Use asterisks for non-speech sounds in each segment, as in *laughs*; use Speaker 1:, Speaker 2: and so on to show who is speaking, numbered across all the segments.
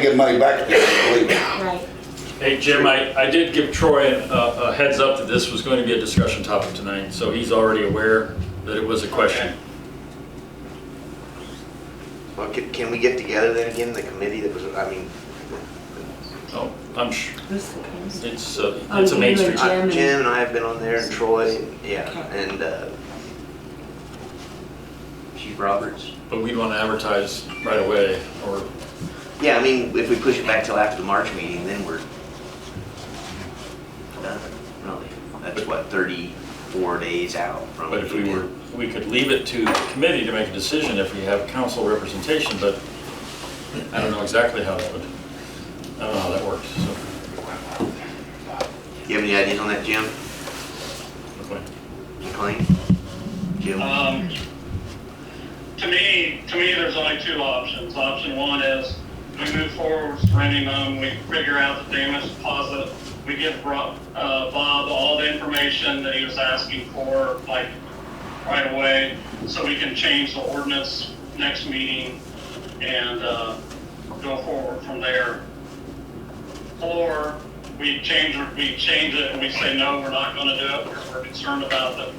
Speaker 1: give money back to people, believe me.
Speaker 2: Right.
Speaker 3: Hey, Jim, I, I did give Troy a, a heads up that this was going to be a discussion topic tonight, so he's already aware that it was a question.
Speaker 4: Well, can, can we get together then again, the committee that was, I mean,
Speaker 3: Oh, I'm sure,
Speaker 2: Who's the committee?
Speaker 3: it's, uh,
Speaker 2: Oh,
Speaker 3: it's a main
Speaker 2: you and
Speaker 3: street.
Speaker 2: Jim.
Speaker 4: I-
Speaker 2: and-
Speaker 4: Jim and I have been on there and Troy, yeah,
Speaker 2: Okay.
Speaker 4: and, uh,
Speaker 5: Chief Roberts.
Speaker 3: But we'd want to advertise right away, or,
Speaker 4: yeah, I mean, if we push it back till after the March meeting, then we're done, really. That's what, 34 days out from.
Speaker 3: but if we were, we could leave it to the committee to make a decision if we have council representation, but I don't know exactly how that would, I don't know how that works, so.
Speaker 4: You have any ideas on that, Jim?
Speaker 3: okay.
Speaker 4: McLean? Jim?
Speaker 6: Um, to me, to me, there's only two options. Option one is we move forward with renting them, we figure out the damage deposit, we give Rob, uh, Bob all the information that he was asking for, like, right away, so we can change the ordinance next meeting and, uh, go forward from there. Or we change, we change it and we say, no, we're not gonna do it, because we're concerned about the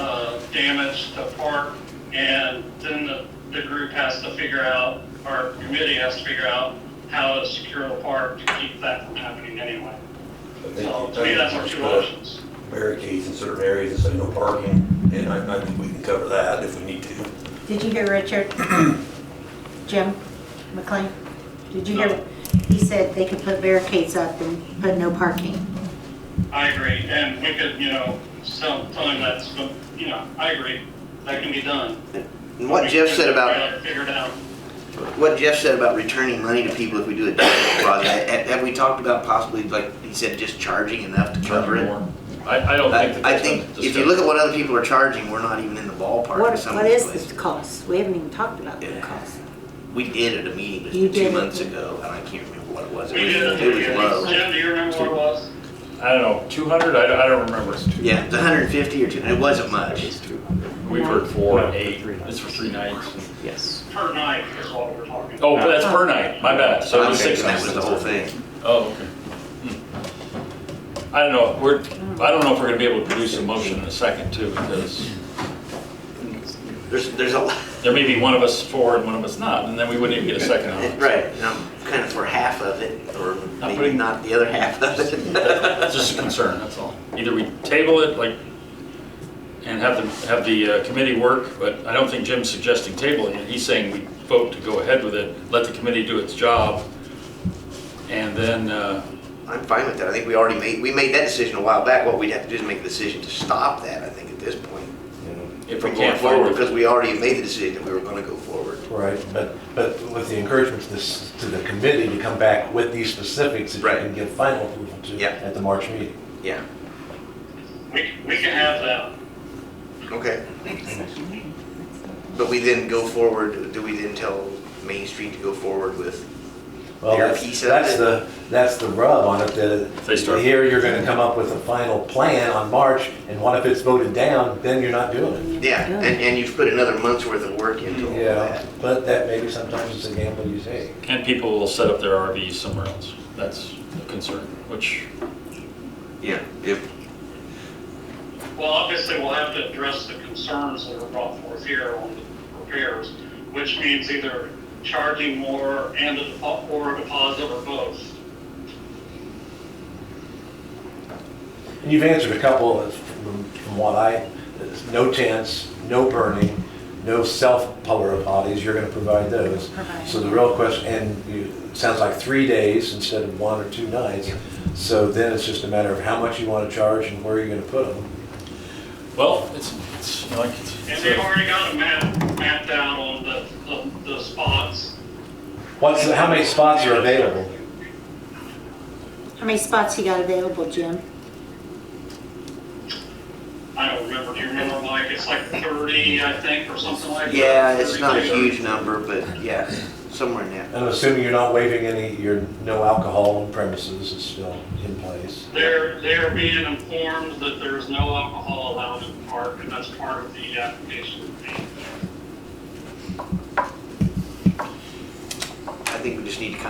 Speaker 6: uh, damage to park, and then the, the group has to figure out, our committee has to figure out how to secure the park to keep that from happening anyway. So to me, that's our two options.
Speaker 7: barricades in certain areas and say no parking, and I, I think we can cover that if we need to.
Speaker 2: Did you hear
Speaker 4: *clears throat*
Speaker 2: Richard? Jim McLean? Did you hear? He said they could put barricades up and put no parking.
Speaker 6: I agree, and we could, you know, tell, tell him that's, you know, I agree, that can be done.
Speaker 4: And what Jeff said about.
Speaker 6: Figured out.
Speaker 4: What Jeff said about returning money to people if we do a damage deposit, have, have we talked about possibly, like he said, just charging enough to cover it?
Speaker 3: I, I don't think that
Speaker 4: I I
Speaker 3: that's
Speaker 4: think
Speaker 3: been
Speaker 4: if you look
Speaker 3: discussed.
Speaker 4: at what other people are charging, we're not even in the ballpark
Speaker 2: What,
Speaker 4: in some of
Speaker 2: what is
Speaker 4: these places.
Speaker 2: the cost? We haven't even talked about the
Speaker 4: Yeah.
Speaker 2: cost.
Speaker 4: We did at a meeting
Speaker 2: You
Speaker 4: just
Speaker 2: did
Speaker 4: two
Speaker 2: it.
Speaker 4: months ago, and I can't remember what it was.
Speaker 6: We
Speaker 4: It
Speaker 6: did,
Speaker 4: was,
Speaker 6: it.
Speaker 4: it was
Speaker 6: Yeah.
Speaker 4: low.
Speaker 6: Jim, do you remember what it was?
Speaker 3: I don't know, 200, I don't, I don't remember.
Speaker 4: Yeah, it was hundred and fifty or two, it wasn't much.
Speaker 3: We've heard four,
Speaker 5: No, for
Speaker 3: eight,
Speaker 5: three nights.
Speaker 3: it's for three nights.
Speaker 5: Yes.
Speaker 6: Per night is what we're talking about.
Speaker 3: Oh, that's per night, my bad, so it
Speaker 4: I'm
Speaker 3: was six
Speaker 4: thinking
Speaker 3: nights.
Speaker 4: that was the whole thing.
Speaker 3: Oh, okay. Hmm. I don't know, we're, I don't know if we're gonna be able to produce a motion in a second too, because
Speaker 4: There's, there's a lot, *laughs*
Speaker 3: there may be one of us for and one of us not, and then we wouldn't even get a second on it.
Speaker 4: right, and I'm kind of for half of it, or maybe
Speaker 3: putting-
Speaker 4: not the other half of it.
Speaker 3: That's just a concern, that's all. Either we table it, like, and have the, have the uh, committee work, but I don't think Jim's suggesting tabling it. He's saying we vote to go ahead with it, let the committee do its job, and then, uh,
Speaker 4: I'm fine with that. I think we already made, we made that decision a while back. What we'd have to do is make a decision to stop that, I think, at this point.
Speaker 3: if
Speaker 4: From
Speaker 3: we
Speaker 4: going
Speaker 3: can't find
Speaker 4: forward,
Speaker 3: it.
Speaker 4: because we already made the decision that we were gonna go forward.
Speaker 8: Right, but, but with the encouragement to this, to the committee to come back with these specifics that you
Speaker 4: Right.
Speaker 8: can give final approval to
Speaker 4: Yeah.
Speaker 8: at the March meeting.
Speaker 4: Yeah,
Speaker 6: We, we can have that.
Speaker 4: okay. But we then go forward, do we then tell Main Street to go forward with,
Speaker 8: Well,
Speaker 4: Your
Speaker 8: that's,
Speaker 4: piece of
Speaker 8: that's
Speaker 4: it.
Speaker 8: the, that's the rub on it,
Speaker 3: They
Speaker 8: that
Speaker 3: start-
Speaker 8: here you're gonna come up with a final plan on March, and what if it's voted down, then you're not doing
Speaker 4: yeah, and, and you've put another month's worth of work into all
Speaker 8: it.
Speaker 4: that.
Speaker 8: But that maybe sometimes it's a gamble you take.
Speaker 3: And people will set up their RVs somewhere else. That's a concern, which,
Speaker 4: Yeah, if,
Speaker 6: Well, obviously, we'll have to address the concerns that were brought forth here on the repairs, which means either charging more and a depo- or a deposit or both.
Speaker 8: And you've answered a couple of- from from what I, no tents, no burning, no self-polar potties, you're gonna provide those.
Speaker 2: Provide.
Speaker 8: So the real question, and you, it sounds like three days instead of one or two nights. So then it's just a matter of how much you wanna charge and where you're gonna put them.
Speaker 3: well, it's, it's like, it's.
Speaker 6: And they've already got a map, mapped out on the, the, the spots.
Speaker 8: What's, how many spots are available?
Speaker 2: How many spots you got available, Jim?
Speaker 6: I don't remember, do you remember, Mike? It's like thirty, I think, or something like that.
Speaker 4: yeah, it's not a
Speaker 6: 32.
Speaker 4: huge number, but yeah, somewhere in there.
Speaker 8: And I'm assuming you're not waiving any, your no alcohol on premises is still in place.
Speaker 6: They're, they're being informed that there's no alcohol allowed in the park, and that's part of the application.
Speaker 4: I think we just need to kind of